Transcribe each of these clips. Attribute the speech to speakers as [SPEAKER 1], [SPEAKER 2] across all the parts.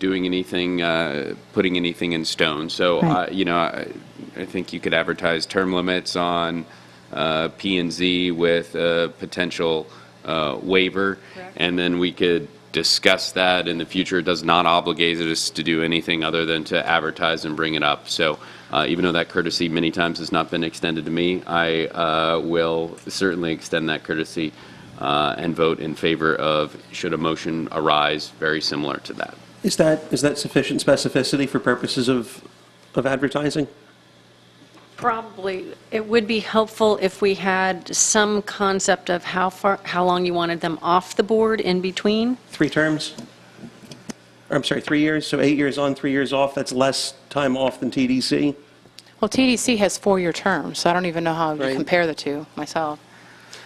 [SPEAKER 1] doing anything, uh, putting anything in stone. So, uh,
[SPEAKER 2] Right.
[SPEAKER 1] you know, I, I think you could advertise term limits on uh, P and Z with a potential uh, waiver. And then we could discuss that in the future. It does not obligate us to do anything other than to advertise and bring it up. So uh, even though that courtesy many times has not been extended to me, I uh, will certainly extend that courtesy uh, and vote in favor of, should a motion arise very similar to that.
[SPEAKER 3] Is that, is that sufficient specificity for purposes of, of advertising?
[SPEAKER 4] Probably, it would be helpful if we had some concept of how far, how long you wanted them off the board in between.
[SPEAKER 3] Three terms? Or, I'm sorry, three years, so eight years on, three years off, that's less time off than TDC?
[SPEAKER 5] Well, TDC has four-year terms, so I don't even know how to
[SPEAKER 3] Right.
[SPEAKER 5] compare the two myself.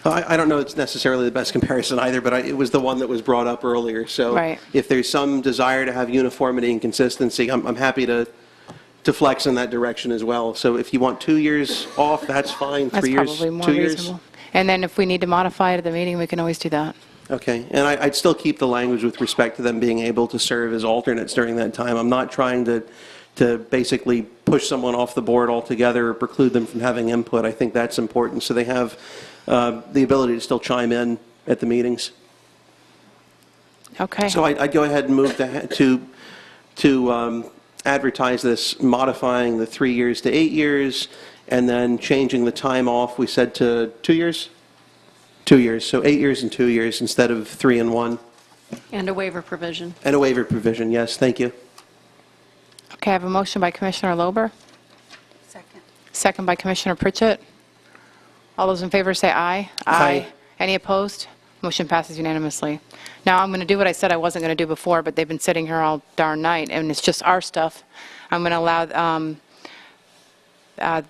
[SPEAKER 3] I, I don't know it's necessarily the best comparison either, but I, it was the one that was brought up earlier. So
[SPEAKER 5] Right.
[SPEAKER 3] if there's some desire to have uniformity and consistency, I'm, I'm happy to, to flex in that direction as well. So if you want two years off, that's fine,
[SPEAKER 5] That's
[SPEAKER 3] three years,
[SPEAKER 5] probably more
[SPEAKER 3] two years.
[SPEAKER 5] reasonable. And then if we need to modify it at the meeting, we can always do that.
[SPEAKER 3] Okay, and I, I'd still keep the language with respect to them being able to serve as alternates during that time. I'm not trying to, to basically push someone off the board altogether or preclude them from having input. I think that's important, so they have uh, the ability to still chime in at the meetings.
[SPEAKER 5] Okay.
[SPEAKER 3] So I- I'd go ahead and move to, ha- to, to um, advertise this, modifying the three years to eight years, and then changing the time off, we said to two years? Two years, so eight years and two years instead of three and one.
[SPEAKER 4] And a waiver provision.
[SPEAKER 3] And a waiver provision, yes, thank you.
[SPEAKER 5] Okay, I have a motion by Commissioner Lober,
[SPEAKER 6] Second.
[SPEAKER 5] second by Commissioner Pritchett. All those in favor say aye.
[SPEAKER 3] Aye.
[SPEAKER 5] Any opposed? Motion passes unanimously. Now, I'm going to do what I said I wasn't going to do before, but they've been sitting here all darn night, and it's just our stuff. I'm going to allow um, uh,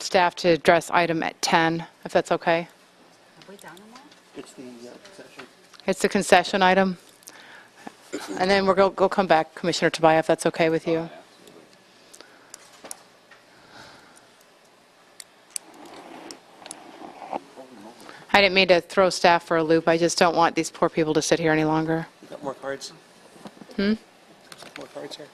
[SPEAKER 5] staff to address item at 10, if that's okay.
[SPEAKER 6] Have we done one?
[SPEAKER 3] It's the uh, session.
[SPEAKER 5] It's the concession item. And then we'll go, go come back, Commissioner Tobias, if that's okay with you. I didn't mean to throw staff for a loop. I just don't want these poor people to sit here any longer.
[SPEAKER 3] You got more cards? Hmm? More cards here?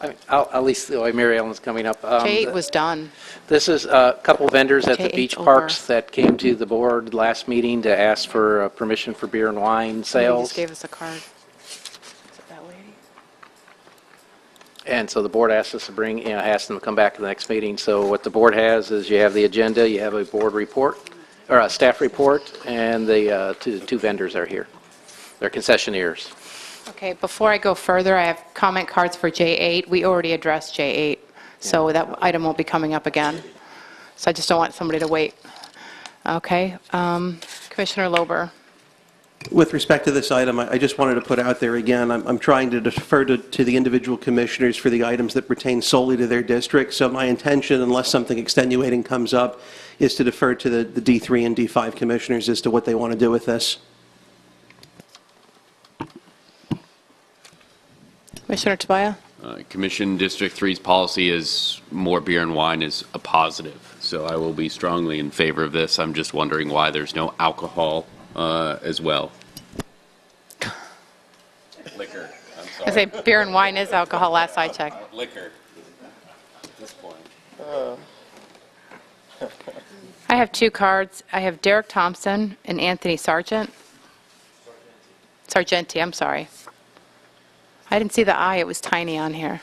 [SPEAKER 7] I mean, I'll- At least, oh, Mary Ellen's coming up. Um,
[SPEAKER 5] Kate was done.
[SPEAKER 7] This is a couple vendors at the
[SPEAKER 5] K8
[SPEAKER 7] beach
[SPEAKER 5] over.
[SPEAKER 7] parks that came to the board last meeting to ask for uh, permission for beer and wine
[SPEAKER 5] He
[SPEAKER 7] sales.
[SPEAKER 5] just gave us a card. Is it that lady?
[SPEAKER 7] And so the board asked us to bring, you know, asked them to come back to the next meeting. So what the board has is you have the agenda, you have a board report, or a staff report, and the uh, two two vendors are here. They're concessionaires.
[SPEAKER 5] Okay, before I go further, I have comment cards for J8. We already addressed J8, so that item won't be coming up again. So I just don't want somebody to wait. Okay, um, Commissioner Lober.
[SPEAKER 3] With respect to this item, I I just wanted to put out there again, I'm I'm trying to defer to to the individual commissioners for the items that pertain solely to their district, so my intention, unless something extenuating comes up, is to defer to the the D3 and D5 commissioners as to what they want to do with this.
[SPEAKER 5] Commissioner Tobias?
[SPEAKER 1] Uh, Commission District Three's policy is more beer and wine is a positive, so I will be strongly in favor of this. I'm just wondering why there's no alcohol uh, as well. Liquor,
[SPEAKER 5] I
[SPEAKER 1] I'm
[SPEAKER 5] say
[SPEAKER 1] sorry.
[SPEAKER 5] beer and wine is alcohol, last I checked.
[SPEAKER 1] Liquor at this point.
[SPEAKER 5] I have two cards. I have Derek Thompson and Anthony Sargent. Sargenti, I'm sorry. I didn't see the I, it was tiny on here.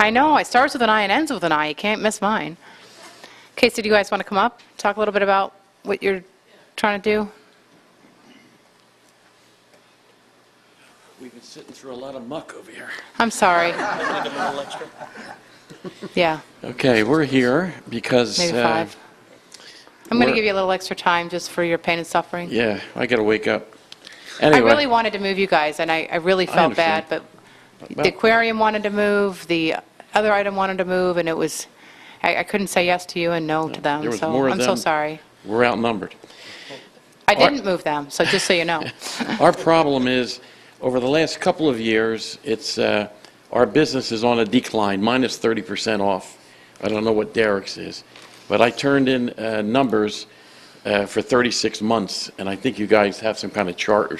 [SPEAKER 5] I know, it starts with an I and ends with an I, you can't miss mine. Okay, so do you guys want to come up, talk a little bit about what you're trying to do?
[SPEAKER 8] We've been sitting through a lot of muck over here.
[SPEAKER 5] I'm sorry. Yeah,
[SPEAKER 8] Okay, we're here because.
[SPEAKER 5] maybe
[SPEAKER 8] uh,
[SPEAKER 5] five. I'm going to
[SPEAKER 8] we're-
[SPEAKER 5] give you a little extra time just for your pain and suffering.
[SPEAKER 8] Yeah, I got to wake up.
[SPEAKER 5] I
[SPEAKER 8] Anyway,
[SPEAKER 5] really wanted to move you guys, and I I really felt
[SPEAKER 8] understand.
[SPEAKER 5] bad, but
[SPEAKER 8] well,
[SPEAKER 5] The aquarium wanted to move, the other item wanted to move, and it was, I I couldn't say yes to you and no to
[SPEAKER 8] there
[SPEAKER 5] them,
[SPEAKER 8] was
[SPEAKER 5] so
[SPEAKER 8] more of
[SPEAKER 5] I'm so
[SPEAKER 8] them.
[SPEAKER 5] sorry.
[SPEAKER 8] We're outnumbered.
[SPEAKER 5] I didn't move them, so just so you know.
[SPEAKER 8] Our problem is, over the last couple of years, it's, uh, our business is on a decline, minus 30% off. I don't know what Derek's is, but I turned in uh, numbers uh, for 36 months, and I think you guys have some kind of chart or